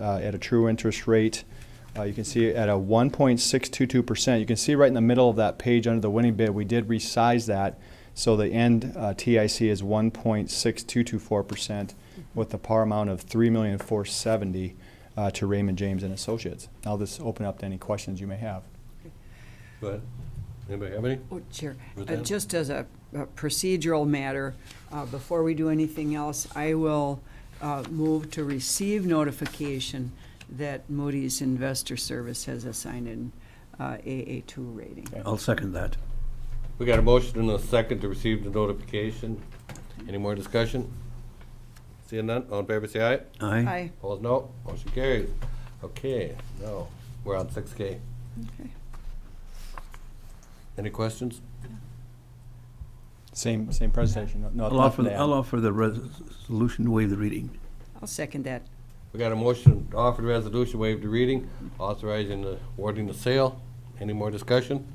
uh, at a true interest rate. Uh, You can see at a 1.622%. You can see right in the middle of that page under the winning bid, we did resize that. So the end uh, TIC is 1.6224% with the par amount of 3,470 uh, to Raymond James and Associates. I'll just open up to any questions you may have. Go ahead. Anybody have any? Oh, Chair, uh, Roseanne? just as a a procedural matter, uh, before we do anything else, I will uh, move to receive notification that Moody's Investor Service has assigned an uh, AA2 rating. I'll second that. We got a motion and a second to receive the notification. Any more discussion? Seeing none, all in favor, say aye. Aye. Aye. Opposed, no. Motion carries. Okay, now, we're on six K. Okay. Any questions? Same, same presentation. No- no- I'll nothing offer, to add. I'll offer the resolution to waive the reading. I'll second that. We got a motion to offer the resolution, waive the reading, authorizing the awarding the sale. Any more discussion?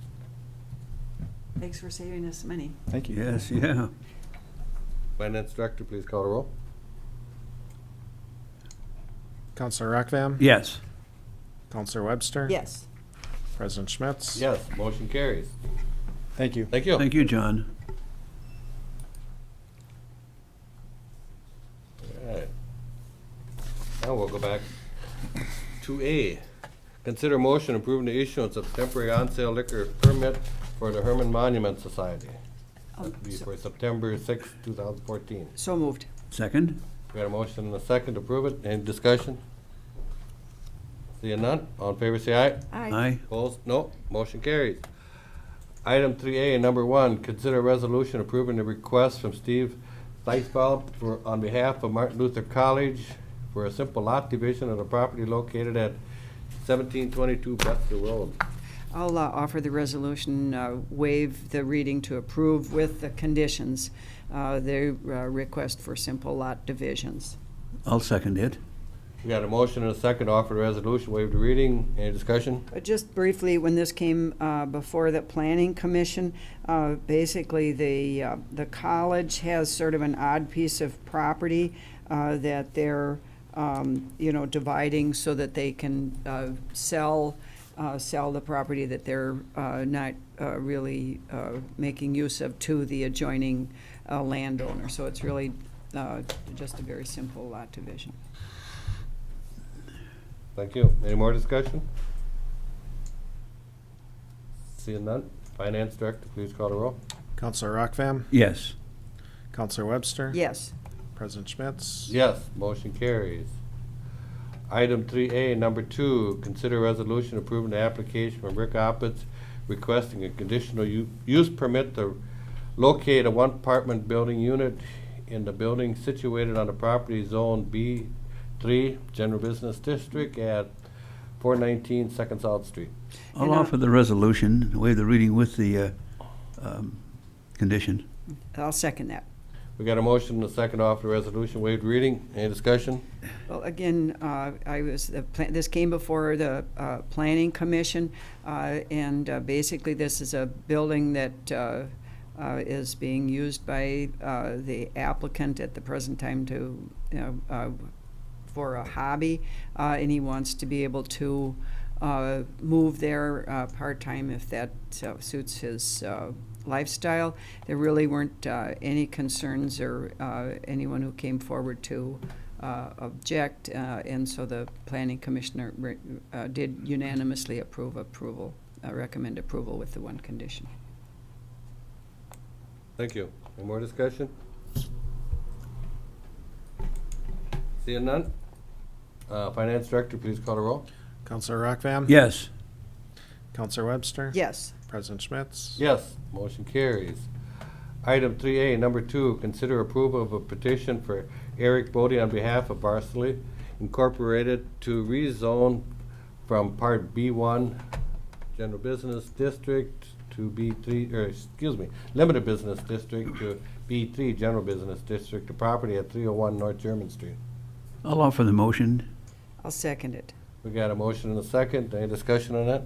Thanks for saving us money. Thank you. Yes, yeah. Finance Director, please call the roll. Counselor Rockvam? Yes. Counselor Webster? Yes. President Schmitz? Yes, motion carries. Thank you. Thank you. Thank you, John. Alright. Now we'll go back to A. Consider motion approving the issuance of temporary on-sale liquor permit for the Herman Monument Society. That'd Oh, be For September sixth, two thousand fourteen. So moved. Second? We got a motion and a second to approve it. Any discussion? Seeing none, all in favor say aye. Aye. Opposed? No. Motion carries. Item three A, number one, consider resolution approving the request from Steve Theisbald for, on behalf of Martin Luther College for a simple lot division of the property located at seventeen twenty-two Bethel Road. I'll uh, offer the resolution, uh, waive the reading to approve with the conditions, uh, their uh, request for simple lot divisions. I'll second it. We got a motion and a second to offer the resolution, waive the reading. Any discussion? Uh, Just briefly, when this came uh, before the Planning Commission, uh, basically, the, uh, the college has sort of an odd piece of property uh, that they're, um, you know, dividing so that they can uh, sell, uh, sell the property that they're uh, not uh, really uh, making use of to the adjoining uh, landowner. So it's really uh, just a very simple lot division. Thank you. Any more discussion? Seeing none, Finance Director, please call the roll. Counselor Rockvam? Yes. Counselor Webster? Yes, President Schmitz? Yes, motion carries. Item three A, number two, consider resolution approving the application from Rick Oppitz requesting a conditional u- use permit to locate a one apartment building unit in the building situated on the property zone B three, general business district at four nineteen Second South Street. I'll And, uh, offer the resolution, waive the reading with the uh, um, condition. I'll second that. to We got a motion and a second off the resolution, waived reading, any discussion? Well, again, uh, I was, the pla- this came before the uh, Planning Commission, uh, and uh, basically, this is a building that uh, uh, is being used by uh, the applicant at the present time to, you know, uh, for a hobby, uh, and he wants to be able to uh, move there uh, part-time if that uh, suits his uh, lifestyle. There really weren't uh, any concerns or uh, anyone who came forward to uh, object, uh, and so the planning commissioner re- uh, did unanimously approve approval, uh, recommend approval with the one condition. Thank you. Any more discussion? Seeing none? Uh, Finance Director, please call the roll. Counselor Rockvam? Yes. Counselor Webster? Yes, President Schmitz? Yes, motion carries. Item three A, number two, consider approval of a petition for Eric Bodie on behalf of Barsley Incorporated to rezone from Part B one, General Business District to B three, or, excuse me, Limited Business District to B three, General Business District, the property at three oh one North German Street. I'll offer the motion. I'll second it. We got a motion and a second. Any discussion on that?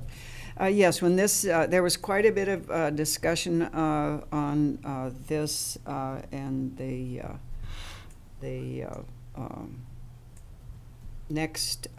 Uh, Yes, when this, uh, there was quite a bit of uh, discussion uh, on uh, this uh, and the, uh, the uh, um, next